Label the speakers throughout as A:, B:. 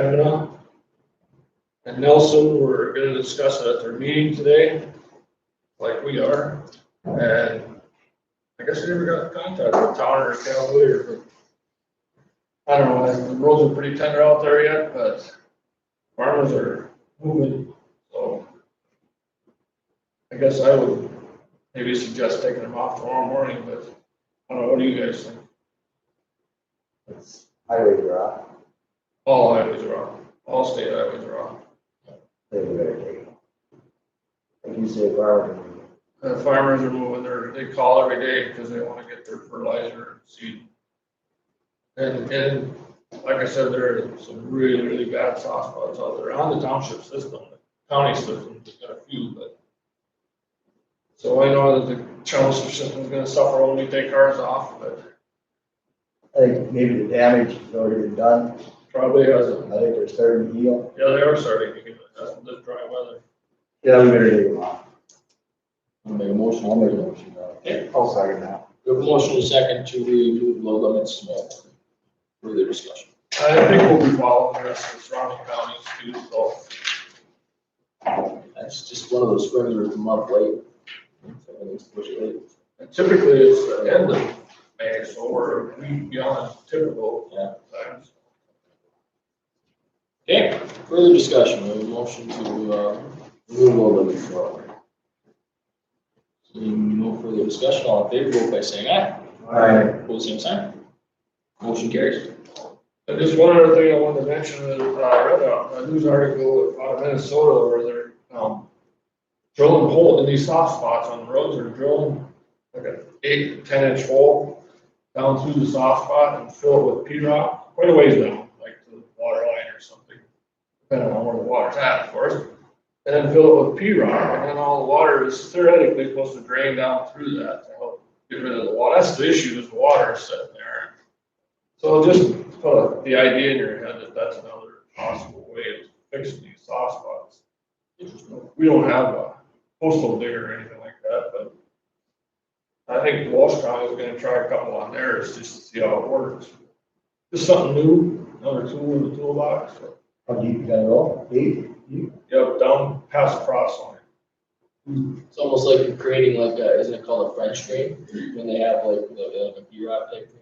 A: Pena and Nelson were gonna discuss it at their meeting today, like we are. And I guess they never got in contact with Town or Cavalier, but I don't know, the roads are pretty tender out there yet, but farmers are moving, so. I guess I would maybe suggest taking them off tomorrow morning, but I don't know, what do you guys think?
B: It's highway garage,
A: All highways are off, all state highways are off.
B: they were gonna take. Like you say, barn,
A: The farmers are moving their, they call every day because they wanna get their fertilizer and seed. And, and like I said, there are some really, really bad soft spots out there on the township system, the county system, there's got a few, but. So I know that the township system's gonna suffer when we take ours off, but
B: I think maybe the damage has already been done,
A: probably
B: I
A: hasn't.
B: think they're starting to heal.
A: Yeah, they are starting to get, that's the dry weather.
B: Yeah, we better take them off.
C: I'll make a motion, I'll make a motion.
B: I'll second that.
C: We have a motion and a second to remove low limits small. Further discussion.
A: I think we'll be following the rest of the surrounding counties too, so.
C: That's just one of those springs that come up late. So I think it's pretty late.
A: And Typically, it's the end of May, so we're a week beyond typical
C: Yeah.
A: times.
C: Okay, further discussion, we have a motion to, uh, remove low limits small. Seeing no further discussion, all in favor, vote by saying aye.
B: Alright,
C: Pose same sign. Motion carries.
A: And Uh, just one other thing I wanted to mention is, uh, I read a, a news article out of Minnesota where they're, um, drilling hole in these soft spots on the roads, they're drilling like an eight, ten inch hole down through the soft spot and fill it with P rock, quite a ways down, like to the water line or something, depending on where the water's at, of course. And then fill it with P rock, and then all the water is theoretically supposed to drain down through that to help get rid of the water. That's the issue, is the water sitting there. So just put the idea in your head that that's another possible way of fixing these soft spots. We don't have a postal digger or anything like that, but I think Walsh County is gonna try a couple on theirs just to see how it works. Just something new, another tool in the toolbox.
B: how deep you gotta go? Deep? Deep?
A: Yep, down past the cross line.
C: It's almost like you're creating like a, isn't it called a French drain? When they have like, the- like a B rock type thing,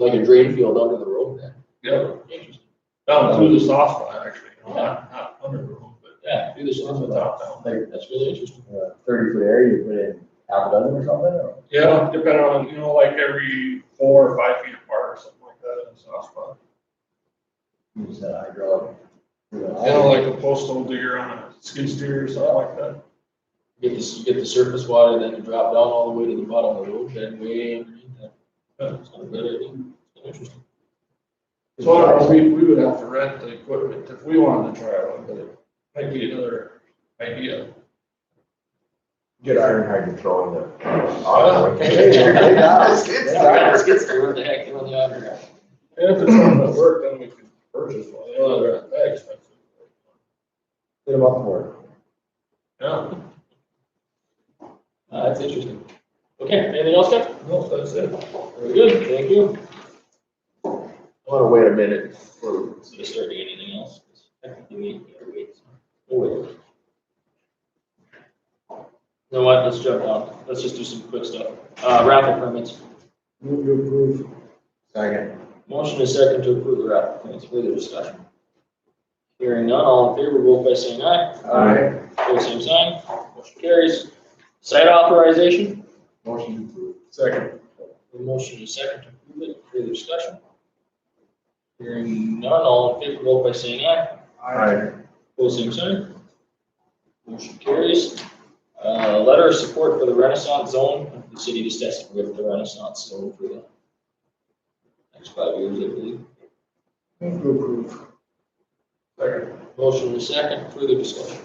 C: like a drain field under the road then.
A: Yep,
C: Interesting.
A: down through the soft line actually, not, not under the road, but
C: Yeah, do this
A: just
C: one
A: without down.
B: Like
C: That's really interesting.
B: uh, thirty foot area, you put in half a dozen or something, or?
A: Yeah, depending on, you know, like every four or five feet apart or something like that in the soft spot.
B: You just said hydraulic. You know,
A: You know, like a postal digger on a skid steer or something like that.
C: Get this, you get the surface water, then you drop down all the way to the bottom of the road, then way underneath that. That's not a bad idea. Interesting.
A: So I don't know, we, we would have to rent the equipment if we wanted to try one, but it might be another idea.
D: Get iron hydrant thrown in
B: Hey, there you go.
D: there.
B: Yeah.
C: What the heck, you know, the auger.
A: And if it's something that worked, then we could purchase one, you know, they're not that expensive.
B: Put them up for
A: Yeah,
C: Uh, that's interesting. Okay, anything else, Jeff?
A: no, that's it.
C: Very good, thank you.
D: I wanna wait a minute for
C: So to start anything else, technically we need to wait. We'll wait. You know what, let's jump down, let's just do some quick stuff. Uh, raffle permits,
B: it. Move to approve. Second.
C: motion is second to approve the raffle permits, further discussion. Hearing none, all in favor, vote by saying aye.
B: Alright,
C: Pose same sign, motion carries. Site authorization,
B: motion to approve.
A: Second.
C: the motion is second to approve it, further discussion. Hearing none, all in favor, vote by saying aye.
B: Alright.
C: Pose same sign. Motion carries. Uh, letter of support for the Renaissance Zone, the city just has to give the Renaissance Zone for the next five years, I believe.
B: Move to approve.
A: Second.
C: Motion is second, further discussion.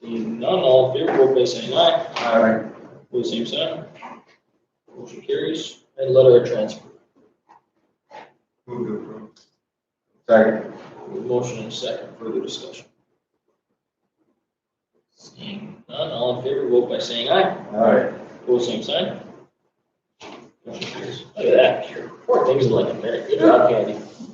C: Seeing none, all in favor, vote by saying aye.
B: Alright.
C: Pose same sign. Motion carries. And letter of transfer.
D: Move to approve.
B: Second.
C: Motion and second, further discussion. Seeing none, all in favor, vote by saying aye.
B: Alright.
C: Pose same sign. Motion carries. Look at that, Poor things in like a minute, good job, Candy.